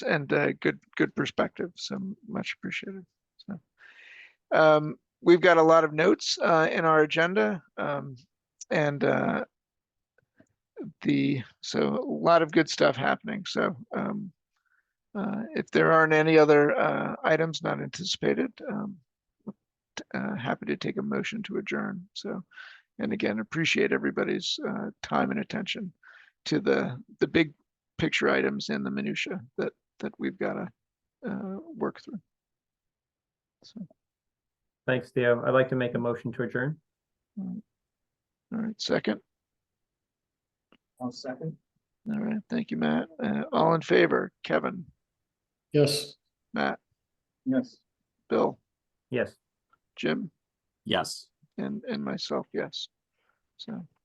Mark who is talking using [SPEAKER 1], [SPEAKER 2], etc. [SPEAKER 1] and uh, good good perspective. So much appreciated. So um, we've got a lot of notes uh, in our agenda, um, and uh, the so a lot of good stuff happening. So um, uh, if there aren't any other uh, items not anticipated, um, uh, happy to take a motion to adjourn. So, and again, appreciate everybody's uh, time and attention to the the big picture items and the minutia that that we've got to uh, work through. So,
[SPEAKER 2] Thanks, Theo. I'd like to make a motion to adjourn.
[SPEAKER 1] all right, second.
[SPEAKER 2] One second.
[SPEAKER 1] All right, thank you, Matt. Uh, all in favor, Kevin,
[SPEAKER 3] Yes.
[SPEAKER 1] Matt,
[SPEAKER 3] Yes.
[SPEAKER 1] Bill,
[SPEAKER 2] Yes.
[SPEAKER 1] Jim,
[SPEAKER 4] Yes.
[SPEAKER 1] and and myself, yes. So